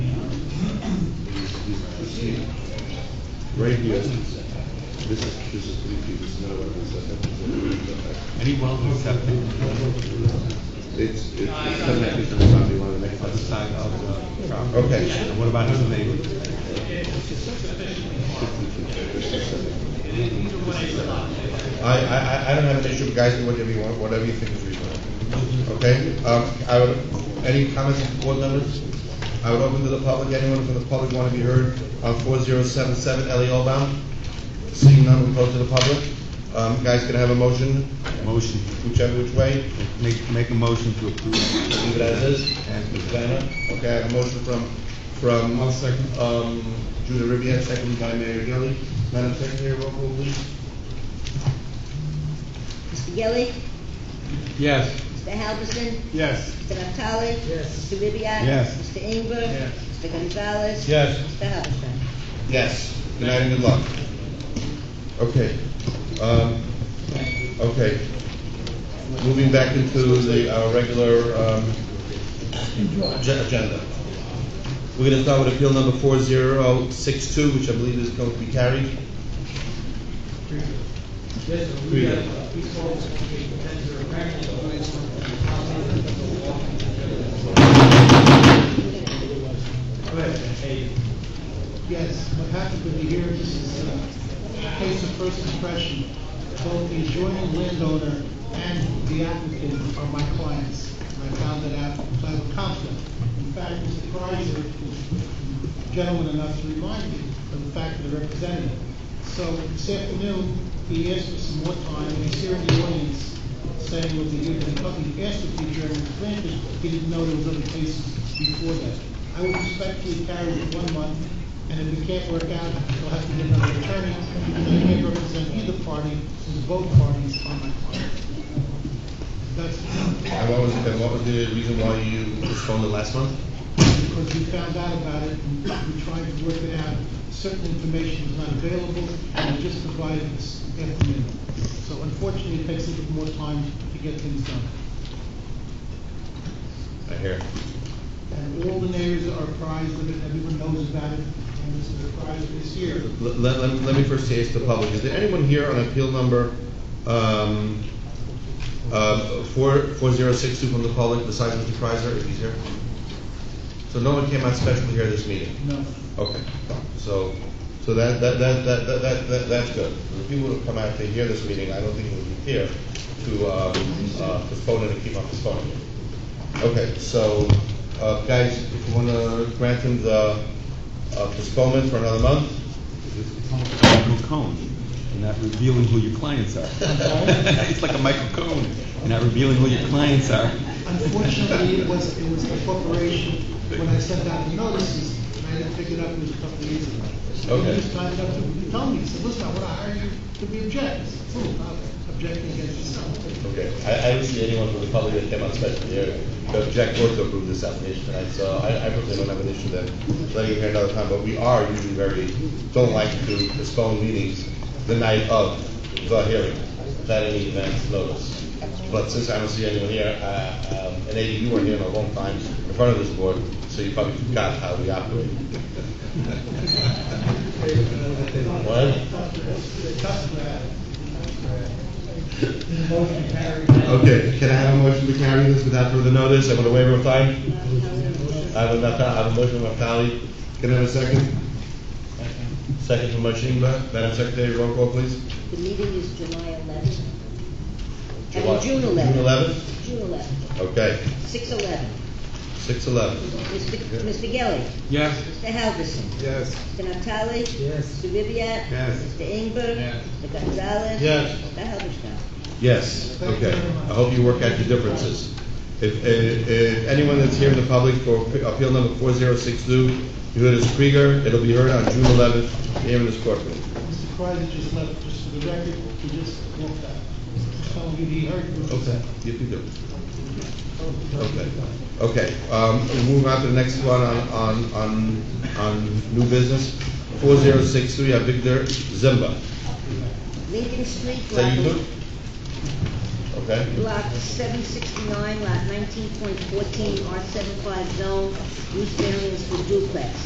right here, this is, this is three feet, this is not what it is, I think it's- Any well with septic It's, it's connected to the property line, the next on the one. side of the property? Okay. And what about his neighbor? I, I, I- I don't have an issue, guys, do whatever you want, whatever you think is reasonable. Okay, um, I would, any comments from board members? I would open to the public, anyone from the public want to be heard on four zero seven seven Ellie Allbound? Seeing none, we close to the public. Um, guys, can I have a motion, Motion, whichever which way? make, make a motion to approve. Leave it as is. Okay, I have a motion from, from. One second. Um, Judah Ribbiad, seconded by Mayor Gilly. Madam Secretary, roll call please. Mr. Gilly, Yes. Mr. Halverson, Yes. Mr. Naftali. Yes. Mr. Ribbiat. Yes. Mr. Inger. Yes. Mr. Gonzalez. Yes. Mr. Halverson. Yes, good night and good luck. Okay, um, okay. Moving back into the, our regular, um, ag- agenda. We're gonna start with appeal number four zero six two, which I believe is going to be carried. Yes, sir. we have, we spoke to the vendor, apparently, the lawyers from the company that the law. Go ahead, hey. Yes, what happened over here, this is uh, a case of first impression. Both the adjoining landowner and the applicant are my clients. And I found that out by the conflict. In fact, Mr. Kreiser was gentleman enough to remind me of the fact that the representative. So this afternoon, he asked for some more time, and he's here in the audience saying what they do to the public. He asked if the adjournment was granted, he didn't know there was other cases before that. I would respectfully carry it one month, and if we can't work out, we'll have to get another attorney, because I can't represent either party, since both parties are my client. That's And what was, and what was the reason why you postponed it last month? because we found out about it, and we tried to work it out. Certain information was not available, and we just provided this afternoon. So unfortunately, it takes a little more time to get things done. I hear. And all the neighbors are apprised of it, everyone knows about it, and Mr. Kreiser is here. Let, let, let- let me first say it's the public. Is there anyone here on appeal number, um, uh, four, four zero six two from the public besides Mr. Kreiser, if he's here? So no one came out specially here this meeting? No, Okay, so, so that, that, that, that, that- that, that, that's good. The people who come out to hear this meeting, I don't think would be here to, uh, uh, postpone it and keep on postponing it. Okay, so, uh, guys, if you wanna grant him the, uh, postponement for another month, Michael Cohen, and not revealing who your clients are. It's like a Michael Cohen, and not revealing who your clients are. Unfortunately, it was, it was the corporation, when I sent out the notices, and I didn't pick it up, it was a couple of years ago. Okay. He just signed up to, he told me, he said, listen, I wanna hire you to be object. I said, "Cool, I'm objecting against yourself. Okay, I, I don't see anyone from the public that came out special here to object or to approve this application tonight, so I, I personally don't have an issue there. Letting you hear another time, but we are usually very, don't like to postpone meetings the night of the hearing, without any advance notice. But since I don't see anyone here, uh, um, and Eddie, you weren't here in a long time in front of this board, so you probably forgot how we operate. What? The customer, Motion carried. Okay, can I have a motion to carry this without further notice, I want a waiver of time? I have a, Nafta- I have a motion from Naftali, can I have a second? Second from Mashinba, Madam Secretary, roll call please. The meeting is July eleventh. I July- mean, June eleventh. June 11th? June eleventh, Okay, six eleven. six eleven. Mr. Mr. Gilly, Yes. Mr. Halverson. Yes. Mr. Naftali. Yes. Mr. Ribbiat. Yes. Mr. Inger. Yes. Mr. Gonzalez. Yes. Mr. Halverson. Yes, Thank you okay, very much. I hope you work out your differences. If, if, if anyone that's here in the public for appeal number four zero six two, you heard as Krieger, it'll be heard on June eleventh, here in this courtroom. Mr. Kreiser just left, just for the record, he just walked out. Just told me he heard. what you said. You can do it. Okay, okay, um, we'll move on to the next one on, on, on, on new business. Four zero six three, Victor Zimba. Lincoln Street, Is that you block, too? Okay, block seven sixty-nine, lot nineteen point fourteen, R seven zone, use variance for duplex.